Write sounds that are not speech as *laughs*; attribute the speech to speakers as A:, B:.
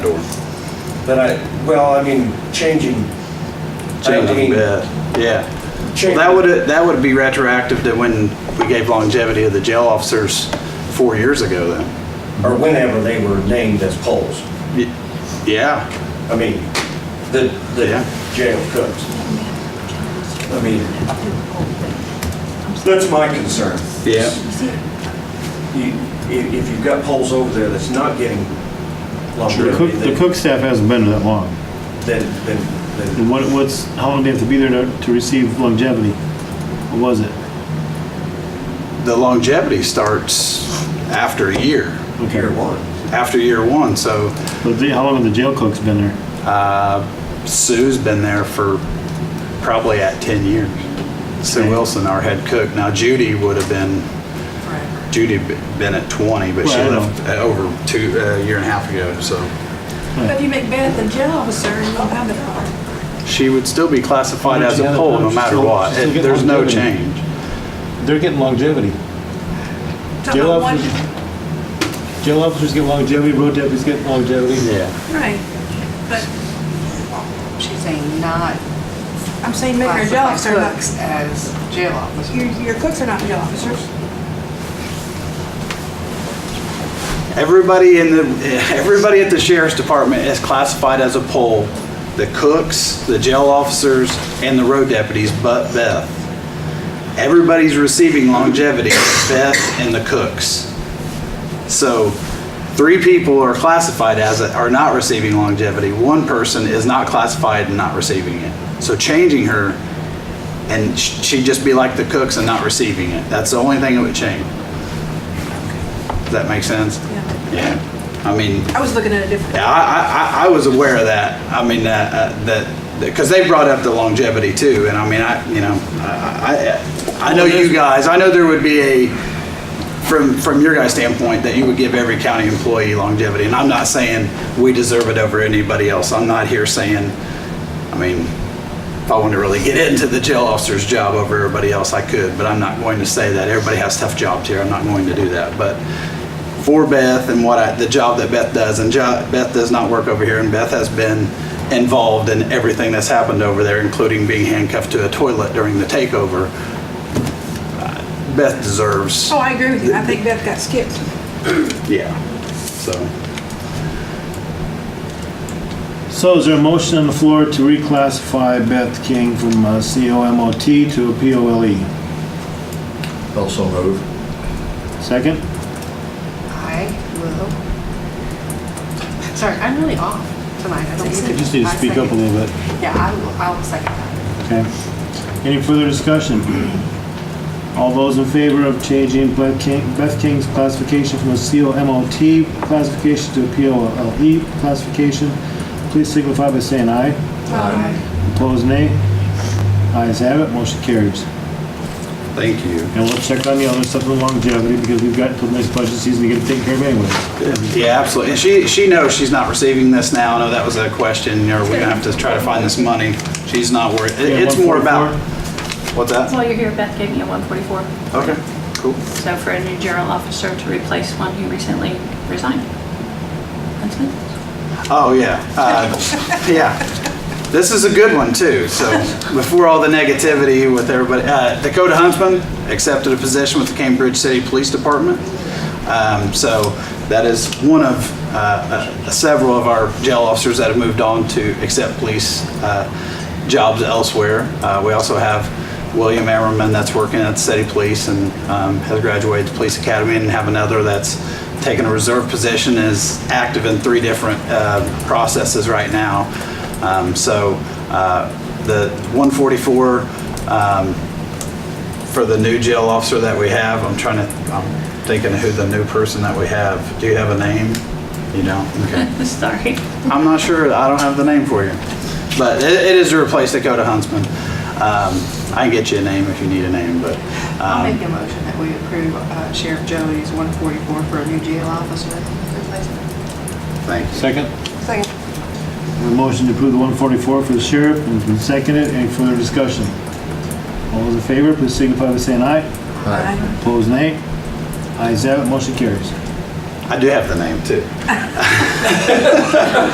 A: Then I, well, I mean, changing. 19
B: Changing bid, yeah. Well,
A: Changing.
B: that would, that would be retroactive to when we gave longevity of the jail officers four years ago then.
A: Or whenever they were named as poles.
B: Y- Yeah,
A: I mean, the,
B: Yeah.
A: the jail cooks. I mean, that's my concern.
B: yeah.
A: You- If, if you've got poles over there that's not getting
C: The cook,
A: longevity,
C: the
A: then,
C: cook staff hasn't been there that long.
A: then, then- then
C: And what, what's, how long do they have to be there to, to receive longevity? What was it?
B: The longevity starts after a year,
C: Okay.
A: year one.
B: after year one, so
C: But the- how long have the jail cooks been there?
B: Sue's been there for probably at 10 years. Sue Wilson, our head cook. Now Judy would have been, Judy b- been at 20, but she
C: Well, I know.
B: left uh, over two, a year and a half ago, so.
D: But you make Beth the jail officer and you'll have it all.
B: She would still be classified as a
E: Yeah,
B: pole no
E: she's
B: matter
E: still-
B: what.
E: she's still
B: It-
E: getting
B: There's no
E: longevity.
B: change.
E: They're getting longevity.
D: Talking
E: Jail
D: about one-
E: Jail officers get longevity, road deputies get longevity.
B: Yeah.
D: Right, but
F: She's saying not
D: I'm saying make her a jail
F: classify
D: officer, not,
F: cooks as jail
D: your,
F: officers.
D: your cooks are not jail officers.
B: Everybody in the, everybody at the sheriff's department is classified as a pole. The cooks, the jail officers, and the road deputies, but Beth. Everybody's receiving longevity, Beth and the cooks. So three people are classified as, are not receiving longevity. One person is not classified and not receiving it. So changing her, and sh- she'd just be like the cooks and not receiving it. That's the only thing that would change. Does that make sense?
D: Yeah.
B: Yeah, I mean,
D: I was looking at a different,
B: yeah, I, I, I- I was aware of that. I mean, uh, uh, that, because they brought up the longevity too, and I mean, I, you know, I, I, I know you guys, I know there would be a, from, from your guys' standpoint, that you would give every county employee longevity, and I'm not saying we deserve it over anybody else. I'm not here saying, I mean, if I wanted to really get into the jail officer's job over everybody else, I could, but I'm not going to say that. Everybody has tough jobs here. I'm not going to do that, but for Beth and what I, the job that Beth does. And jo- Beth does not work over here, and Beth has been involved in everything that's happened over there, including being handcuffed to a toilet during the takeover. uh, Beth deserves,
D: oh, I agree with you, I think Beth got skipped.
B: yeah. So,
C: So is there a motion on the floor to reclassify Beth King from uh, COMOT to a POLE?
G: Also move.
C: Second?
F: I will. Sorry, I'm really off tonight. I don't mean
C: You just need to
F: I
C: speak up a
F: second-
C: little bit,
F: Yeah, I will, I will second that.
C: okay? Any further discussion? All those in favor of changing Beth King- Beth King's classification from a COMOT classification to a POLE E classification, please signify by saying aye.
D: Um,
C: Opposed, nay? Ayes have it, motion carries.
B: thank you.
C: And we'll check on the other stuff with longevity because we've got till next budget season to get it taken care of anyway.
B: Yeah, absolutely. And she, she knows she's not receiving this now. I know that was a question, or we're gonna have to try to find this money. She's not worried. It- It's more about, what's
H: That's
B: that?
H: why you're here, Beth gave me a 144.
B: Okay, cool.
H: So for a new general officer to replace one who recently resigned. That's it.
B: Oh, yeah. Uh, yeah. This is a good one, too. So, before all the negativity with everybody, uh, Dakota Huntsman accepted a position with the Cambridge City Police Department. Um, so, that is one of uh, uh, several of our jail officers that have moved on to accept police uh, jobs elsewhere. Uh, we also have William Ammerman that's working at the city police and um, has graduated the police academy and have another that's taken a reserve position and is active in three different uh, processes right now. Um, So uh, the 144 um, for the new jail officer that we have, I'm trying to, I'm thinking of who the new person that we have. Do you have a name? You don't? Okay.
H: *laughs* Sorry.
B: I'm not sure. I don't have the name for you. But it, it is to replace Dakota Huntsman. Um, I can get you a name if you need a name, but
F: I'll make
B: um,
F: a motion that we approve uh, Sheriff Joey's 144 for a new jail officer replacement.
B: thank you.
E: Second?
D: Second.
C: A motion to approve the 144 for the sheriff and it's been seconded. Any further discussion? All those in favor, please signify by saying aye.
D: I-
C: Opposed, nay? Ayes have it, motion carries.
B: I do have the name too.